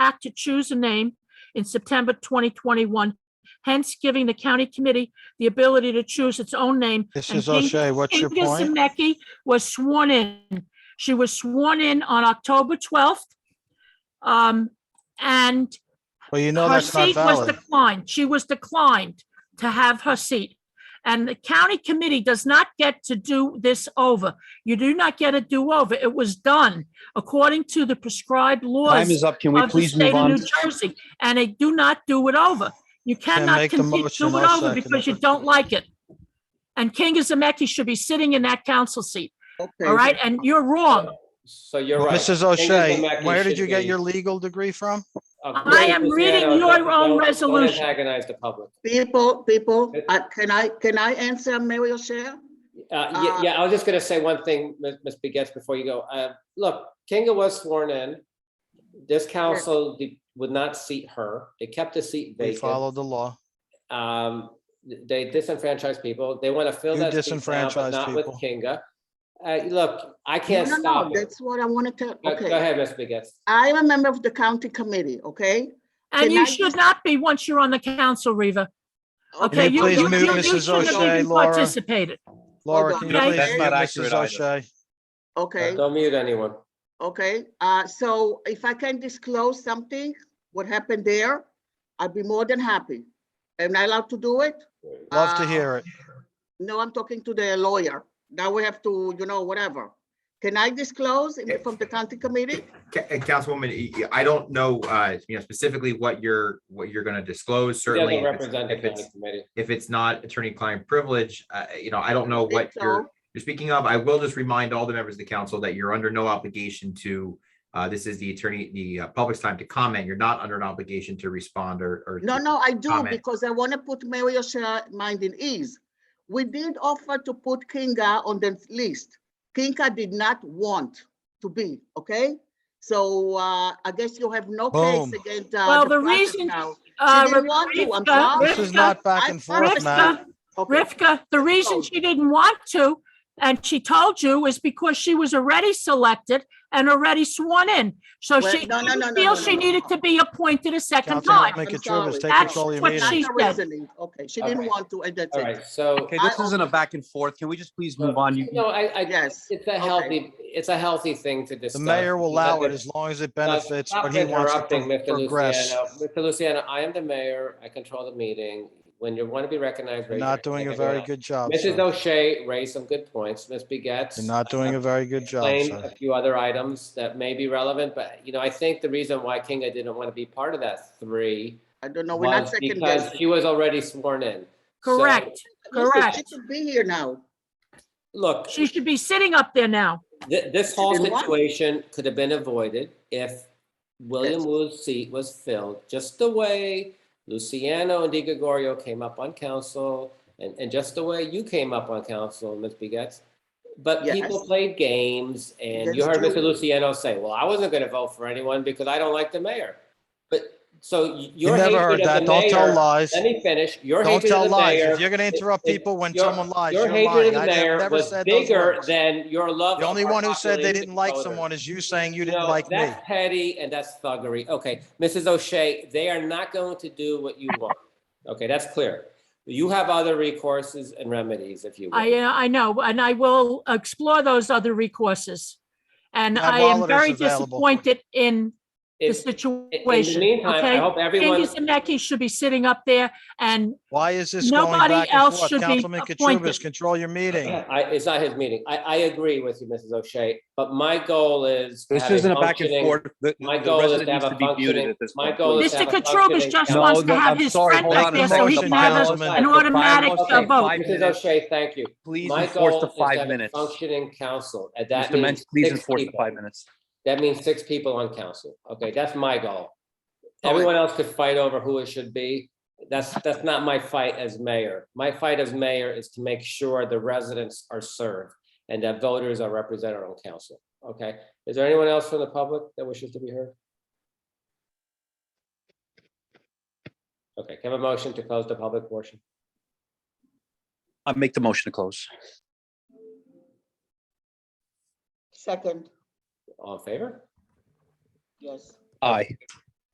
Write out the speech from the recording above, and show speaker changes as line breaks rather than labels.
Act to choose a name in September 2021, hence giving the county committee the ability to choose its own name.
This
And
is O'Shea. What's your
Inga
point?
Zemecki was sworn in. She was sworn in on October 12th. Um, And
Well, you know
her
that's not
seat was
valid.
declined. She was declined to have her seat. And the county committee does not get to do this over. You do not get a do-over. It was done according to the prescribed
Time
laws
is up. Can we
of the
please move
state of
on?
New Jersey, and they do not do it over. You cannot
make the
continue to
motion.
do it
I'll
over
second it.
because you don't like it. And King Zemecki should be sitting in that council seat, all right? And you're wrong.
So you're right.
Mrs. O'Shea, where did you get your legal degree from?
I am reading your own resolution.
Don't antagonize the public.
People, people,
It-
uh, can I, can I answer Mary O'Shea?
Uh, ye-
Uh,
Yeah, I was just going to say one thing, Ms. Ms. Begets, before you go. Uh, Look, Kinga was sworn in. This council did- would not seat her. They kept the seat
We
vacant.
follow the law.
Um, They disenfranchised people. They want to fill
You
that seat now, but
disenfranchised
not with
people.
Kinga. Uh, Look, I can't
No, no, no,
stop it.
That's what I wanted to,
Go go
okay.
ahead, Ms. Begets.
I am a member of the county committee, okay?
And
Can I
you
just-
should not be once you're on the council, Reva. Okay,
you
you,
please
you,
mute
you you
Mrs.
shouldn't have
O'Shea,
even
Laura?
participated.
Laura,
on.
can you
No,
please
that's
mute
not
Mrs.
accurate either.
O'Shea?
Okay,
Don't mute anyone.
okay. Uh, so if I can disclose something, what happened there, I'd be more than happy. Am I allowed to do it?
Love to
Uh,
hear it.
No, I'm talking to the lawyer. Now we have to, you know, whatever. Can I disclose in- from the county committee?
Ca- And Councilwoman, y- y- I don't know, uh, you know, specifically what you're, what you're gonna disclose,
He
certainly.
doesn't
if it's-
represent the
If
county
it's,
committee.
if it's not attorney-client privilege, uh, you know, I don't know
Think
what you're,
so?
you're speaking of. I will just remind all the members of the council that you're under no obligation to, uh, this is the attorney, the uh, public's time to comment. You're not under an obligation to respond or, or.
No, no, I do,
comment.
because I want to put Mary O'Shea mind in ease. We did offer to put Kinga on the list. Kinga did not want to be, okay? So uh, I guess you have no
Boom.
case against. uh,
Well, the
process
reason-
now.
Uh,
didn't want to, I'm
Rivka-
sorry.
This is not back
I-
and forth,
Rivka-
Matt.
Okay,
Rivka, the reason
Oh.
she didn't want to, and she told you, is because she was already selected and already sworn in. So
Well,
she
no, no, no, no,
didn't
no,
feel
no,
she
no,
needed
no.
to be appointed a second
Councilman
time.
make-
McAtrivas, take
That's
control of your
what
meeting.
she-
That's the
said.
reasoning. Okay, she
Okay.
didn't want to, and that's
All
it.
right, so.
Okay,
I-
this isn't a back and forth. Can we just please move on? You,
No, I, I,
Yes,
It's a healthy, it's a healthy thing to
The
discuss.
mayor will allow it as long as it benefits
Stop
what he wants to
interrupting,
pro-
Mr.
progress.
Luciano. Mr. Luciano, I am the mayor. I control the meeting. When you want to be recognized.
You're
raise your
not doing a
hand.
very good job,
Mrs.
sir.
O'Shea raised some good points. Ms. Begets.
You're not doing a very good job,
Explained
sir.
a few other items that may be relevant, but you know, I think the reason why Kinga didn't want to be part of that three
I don't know, we're not
was
second
because
guessing.
she was already sworn in. So,
Correct.
Listen, She
correct.
should be here now.
Look,
She should be sitting up there now.
Th- This whole
Then what?
situation could have been avoided if William
Yes.
Wu's seat was filled, just the way Luciano and Di Gregorio came up on council, and, and just the way you came up on council, Ms. Begets. But people
Yes.
played games, and you
That's
heard Mr.
true.
Luciano say, well, I wasn't going to vote for anyone because I don't like the mayor. But, so y-
You
your
never
hatred
heard that.
of the
Don't tell
mayor,
lies.
let me finish, your
Don't
hatred
tell
of the
lies.
mayor.
If you're gonna interrupt
it-
people when
your-
someone lies,
Your
you're
hatred
lying.
of the
I never
mayor
never
was
said those
bigger
words.
than your love.
The
of
only
our
one who said they
population
didn't like
voters.
someone is you saying you didn't
No,
like me.
That's petty and that's thuggery. Okay, Mrs. O'Shea, they are not going to do what you want. Okay, that's clear. You have other recourses and remedies if you will.
I, uh, I know, and I will explore those other recourses. And
Now,
I
while it
am
is
very
available.
disappointed in the
If- In the
situation,
meantime, I
okay?
hope everyone,
King Zemecki should be sitting up there and
Why is this going
Nobody
back and
else
forth?
should be
Councilman Katrubis,
appointed.
control your meeting.
I, it's not his meeting. I, I agree with you, Mrs. O'Shea, but my goal is. to
this
have
isn't a back and
functioning-
forth. The-
My
the
goal is
resident
to have
needs
a
be muted
functioning,
at this
my
point,
goal
please.
is to
Mr.
have a
Katrubis
functioning
just
council.
wants to
No, no,
have
I'm
his
sorry,
friend
hold
back
on a
there so he
second,
can have
Councilman.
a- an
For five
automatic
votes,
uh,
okay,
vote.
five
Mrs.
minutes.
O'Shea, thank you.
Please
My
enforce
goal
the
is to
five
have a
minutes.
functioning council, and that
Mr.
means
Ments, please
six
enforce the
people.
five minutes.
That means six people on council. Okay, that's my goal.
All right.
Everyone else could fight over who it should be. That's, that's not my fight as mayor. My fight as mayor is to make sure the residents are served and that voters are represented on council. Okay, is there anyone else from the public that wishes to be heard? Okay, can I have a motion to close the public portion?
I'll make the motion to close.
Second,
All in favor?
yes.
Aye.